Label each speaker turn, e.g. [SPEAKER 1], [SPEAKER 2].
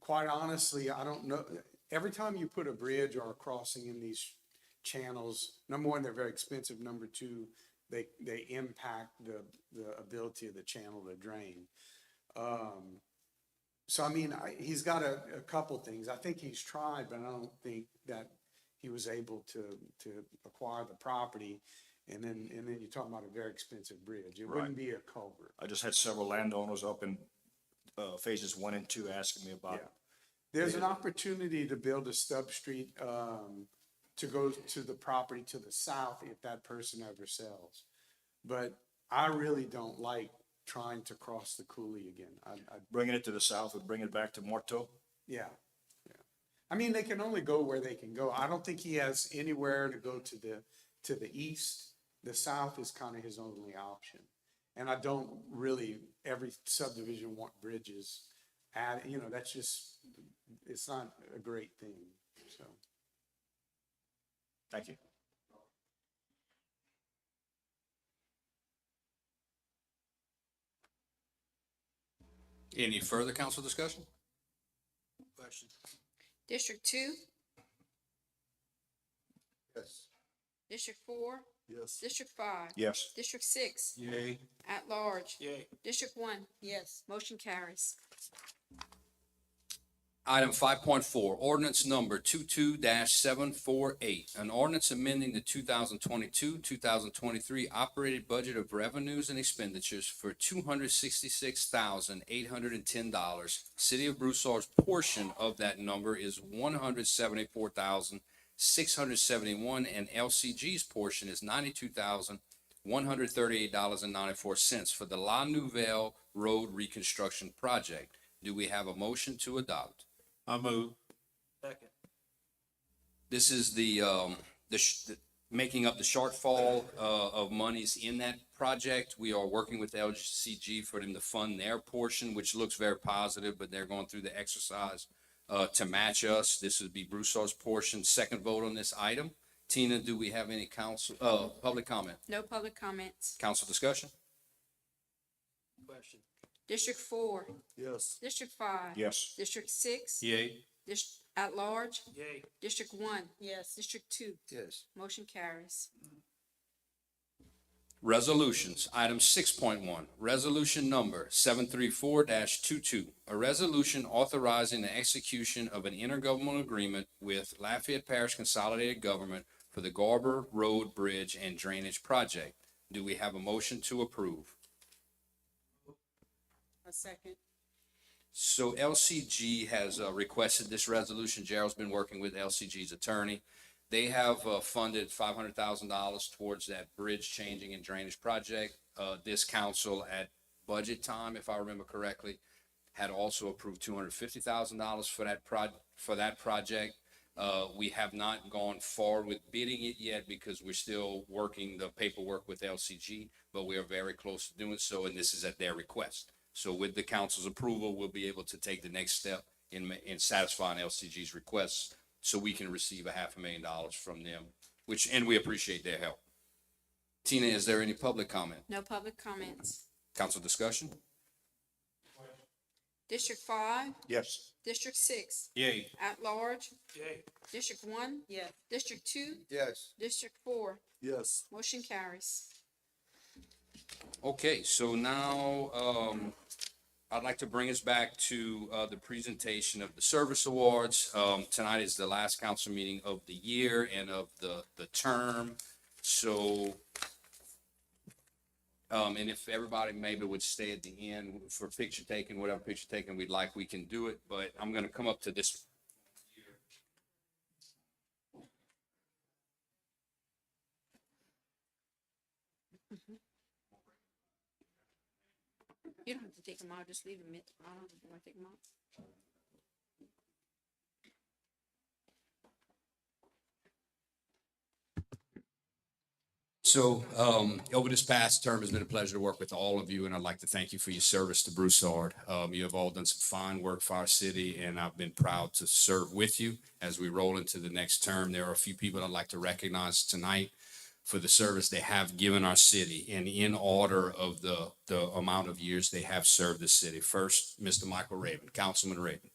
[SPEAKER 1] quite honestly, I don't know, every time you put a bridge or a crossing in these channels, number one, they're very expensive. Number two, they, they impact the, the ability of the channel to drain. Um, so I mean, I, he's got a, a couple things. I think he's tried, but I don't think that he was able to, to acquire the property. And then, and then you're talking about a very expensive bridge. It wouldn't be a culvert.
[SPEAKER 2] I just had several landowners up in, uh, phases one and two asking me about
[SPEAKER 1] Yeah. There's an opportunity to build a stub street, um, to go to the property to the south if that person ever sells. But I really don't like trying to cross the coulee again. I, I,
[SPEAKER 2] bringing it to the south and bringing it back to Morto.
[SPEAKER 1] yeah, yeah. I mean, they can only go where they can go. I don't think he has anywhere to go to the, to the east. The south is kind of his only option. And I don't really, every subdivision want bridges. Add, you know, that's just, it's not a great thing, so.
[SPEAKER 2] Thank you.
[SPEAKER 3] Any further council discussion? Question.
[SPEAKER 4] District two,
[SPEAKER 5] Yes.
[SPEAKER 4] district four,
[SPEAKER 5] Yes.
[SPEAKER 4] district five.
[SPEAKER 2] Yes.
[SPEAKER 4] District six,
[SPEAKER 3] Yay.
[SPEAKER 4] at large.
[SPEAKER 3] Yay.
[SPEAKER 4] District one. Yes. Motion carries.
[SPEAKER 3] Item five point four, ordinance number two-two seven four eight. An ordinance amending the two thousand twenty-two, two thousand twenty-three operated budget of revenues and expenditures for two hundred sixty-six thousand eight hundred and ten dollars. City of Broussard's portion of that number is one hundred seventy-four thousand six hundred seventy-one and LCG's portion is ninety-two thousand one hundred thirty-eight dollars and ninety-four cents for the La Nouvelle Road Reconstruction Project. Do we have a motion to adopt?
[SPEAKER 6] I move.
[SPEAKER 3] This is the, um, the, sh- the- making up the shortfall, uh, of monies in that project. We are working with LCG for them to fund their portion, which looks very positive, but they're going through the exercise, uh, to match us. This would be Broussard's portion. Second vote on this item. Tina, do we have any council, uh, public comment?
[SPEAKER 4] No public comments.
[SPEAKER 3] Council discussion?
[SPEAKER 4] District four,
[SPEAKER 5] Yes.
[SPEAKER 4] district five.
[SPEAKER 2] Yes.
[SPEAKER 4] District six.
[SPEAKER 6] Yay.
[SPEAKER 4] Dis- at large. Yay. District one. Yes. District two.
[SPEAKER 5] Yes.
[SPEAKER 4] Motion carries.
[SPEAKER 3] Resolutions, item six point one, resolution number seven three four 22 A resolution authorizing the execution of an intergovernmental agreement with Lafayette Parish Consolidated Government for the Garber Road Bridge and Drainage Project. Do we have a motion to approve?
[SPEAKER 4] A second.
[SPEAKER 3] So LCG has uh, requested this resolution. Gerald's been working with LCG's attorney. They have uh, funded five hundred thousand dollars towards that bridge changing and drainage project. Uh, This council at budget time, if I remember correctly, had also approved two hundred fifty thousand dollars for that proj, for that project. Uh, We have not gone far with bidding it yet because we're still working the paperwork with LCG, but we are very close to doing so, and this is at their request. So with the council's approval, we'll be able to take the next step in, ma- in satisfying LCG's requests so we can receive a half a million dollars from them, which, and we appreciate their help. Tina, is there any public comment?
[SPEAKER 4] No public comments.
[SPEAKER 3] Council discussion?
[SPEAKER 4] District five,
[SPEAKER 2] Yes.
[SPEAKER 4] district six,
[SPEAKER 6] Yay.
[SPEAKER 4] at large. Yay. District one. Yes. District two,
[SPEAKER 5] Yes.
[SPEAKER 4] district four.
[SPEAKER 5] Yes.
[SPEAKER 4] Motion carries.
[SPEAKER 3] Okay, so now, um, I'd like to bring us back to, uh, the presentation of the service awards. Um, tonight is the last council meeting of the year and of the, the term, so. Um, and if everybody maybe would stay at the end for picture taking, whatever picture taking we'd like, we can do it, but I'm gonna come up to this.
[SPEAKER 4] You don't have to take them out, just leave them, in. I don't want to take them out.
[SPEAKER 3] So, um, over this past term, it's been a pleasure to work with all of you, and I'd like to thank you for your service to Broussard. Um, you have all done some fine work for our city, and I've been proud to serve with you as we roll into the next term. There are a few people I'd like to recognize tonight for the service they have given our city, and in order of the, the amount of years they have served the city. First, Mr. Michael Raven, Councilman Raven.